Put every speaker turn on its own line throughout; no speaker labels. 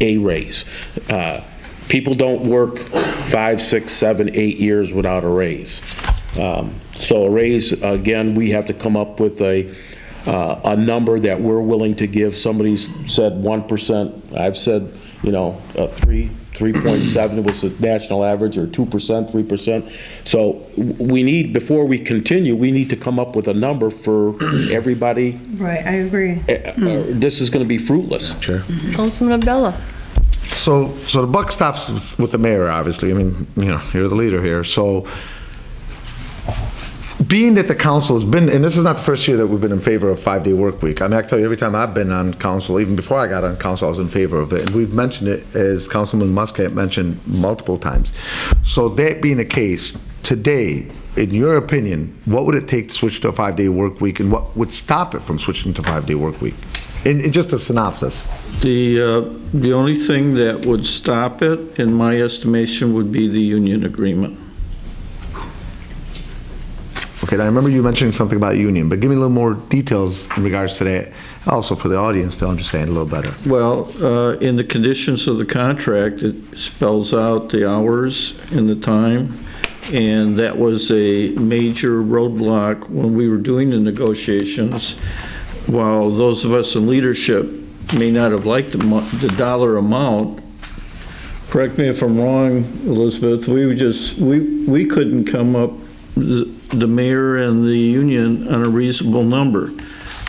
a raise. Uh, People don't work five, six, seven, eight years without a raise. Um, So a raise, again, we have to come up with a, uh, a number that we're willing to give. Somebody's said 1%, I've said, you know, a 3, 3.7 was the national average, or 2%, 3%. So w- we need, before we continue, we need to come up with a number for everybody.
Right, I agree.
Eh, eh, This is going to be fruitless.
Sure.
Councilman Abdullah.
So, so the buck stops with the mayor, obviously. I mean, you know, you're the leader here. So, being that the council has been, and this is not the first year that we've been in favor of five-day work week. I mean, I can tell you, every time I've been on council, even before I got on council, I was in favor of it. And we've mentioned it, as Councilman Muscat mentioned multiple times. So that being the case, today, in your opinion, what would it take to switch to a five-day work week? And what would stop it from switching to five-day work week? In, in just a synopsis.
The, uh, the only thing that would stop it, in my estimation, would be the union agreement.
Okay, now I remember you mentioning something about union, but give me a little more details in regards to that, also for the audience to understand a little better.
Well, uh, in the conditions of the contract, it spells out the hours and the time, and that was a major roadblock when we were doing the negotiations. While those of us in leadership may not have liked the mo- the dollar amount, correct me if I'm wrong, Elizabeth, we were just, we, we couldn't come up, the the mayor and the union, on a reasonable number.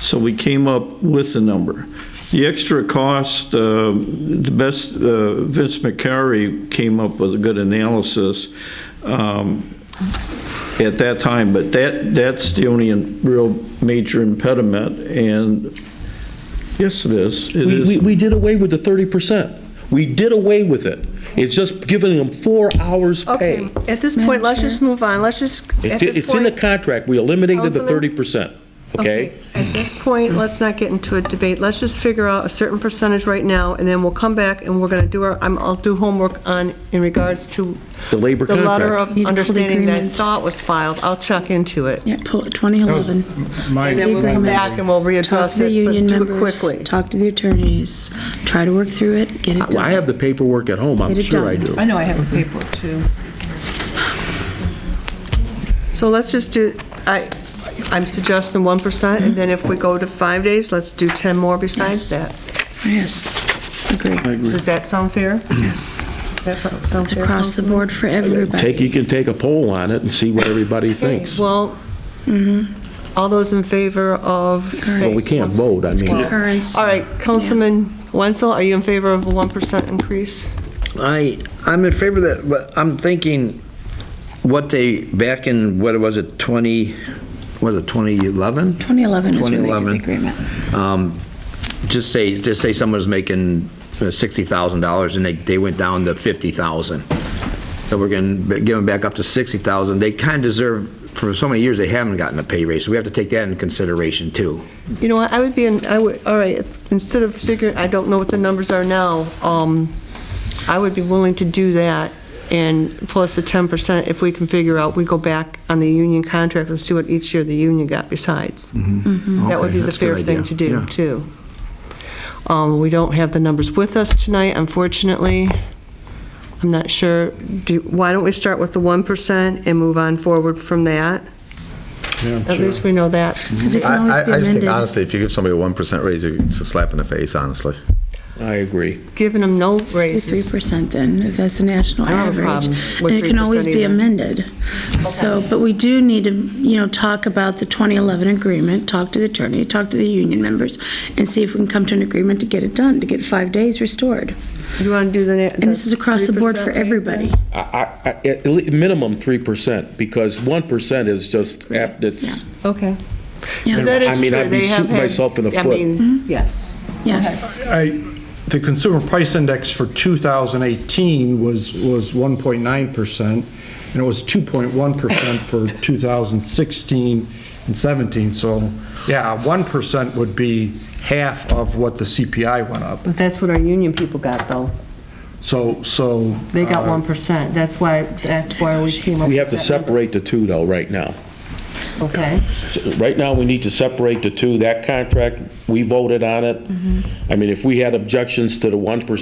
So we came up with a number. The extra cost, uh, the best, uh, Vince McCary came up with a good analysis um, at that time, but that, that's the only real major impediment, and yes, it is. It
We,
is.
we, we did away with the 30%. We did away with it. It's just giving them four hours pay.
Okay, at this point, let's just move on. Let's just, at
It's
this
it's in the
point.
contract, we eliminated the
Councilman?
30%, okay?
At this point, let's not get into a debate. Let's just figure out a certain percentage right now, and then we'll come back and we're going to do our, I'm- I'll do homework on, in regards to.
The labor
The letter
contract.
of
Need to pull the
understanding that I
agreement.
thought was filed. I'll check into it.
Yeah, pull it, 2011.
My-
And then we'll come
Agreement.
back and we'll
Talk
readdress
to the
it, but
union
do it
members,
quickly.
talk to the attorneys, try to work through it, get it
I
done.
have the paperwork at home, I'm
Get it
sure I
done.
do. Mhm.
I know I have a paper, too. So let's just do, I, I'm suggesting 1%, and then if we go to five days, let's do 10 more besides that.
Yes, agree.
Does that sound fair?
Yes.
Does that sound
It's
fair,
across the
Councilman?
board for everybody.
Take, you can take a poll on it and see what everybody thinks.
Well,
Mm-hmm.
all those in favor of,
Well,
say...
we can't vote, I mean,
Concurrence.
All right, Councilman Wenzel, are you in favor of a 1% increase?
I, I'm in favor of that, but I'm thinking what they, back in, what was it, 20, was it 2011?
2011 is when they did the
2011.
agreement.
Um, Just say, just say someone's making uh, $60,000 and they, they went down to 50,000. So we're going to give them back up to 60,000. They kind of deserve, for so many years, they haven't gotten a pay raise, so we have to take that into consideration too.
You know what, I would be, in I would, all right, instead of figuring, I don't know what the numbers are now, um, I would be willing to do that, and plus the 10%, if we can figure out, we go back on the union contract and see what each year the union got besides. That would
Mm-hmm. Okay,
be the
that's a good
fair thing
idea.
to do,
Yeah.
too. Um, We don't have the numbers with us tonight, unfortunately. I'm not sure, do, why don't we start with the 1% and move on forward from that? At least we know that's
Mm-hmm.
Because it can
I,
always be
I- I just think
amended.
honestly, if you give somebody a 1% raise, it's a slap in the face, honestly.
I agree.
giving them no raises.
Three percent then, if that's a national
I don't have a
average.
problem with
And it can
3%
always be
either.
amended. So, but we do need to, you know, talk about the 2011 agreement, talk to the attorney, talk to the union members, and see if we can come to an agreement to get it done, to get five days restored.
You want to do the...
And this is across the board for everybody.
I, I, I- at le- minimum 3%, because 1% is just, apt- it's,
Okay.
Yeah.
That
I
is
mean,
true.
I'd be
They have
shooting
had-
myself in the
I
foot.
Mm-hmm.
mean, yes.
Yes.
I, the consumer price index for 2018 was, was 1.9%, and it was 2.1% for 2016 and 17, so, yeah, 1% would be half of what the CPI went up.
But that's what our union people got, though.
So, so.
They got
uh,
1%. That's why, that's why we came up with that.
we have to
number.
separate the two though, right now.
Okay.
So Right now, we need to separate the two. That contract, we voted on it. I mean, if we had objections to the 1%,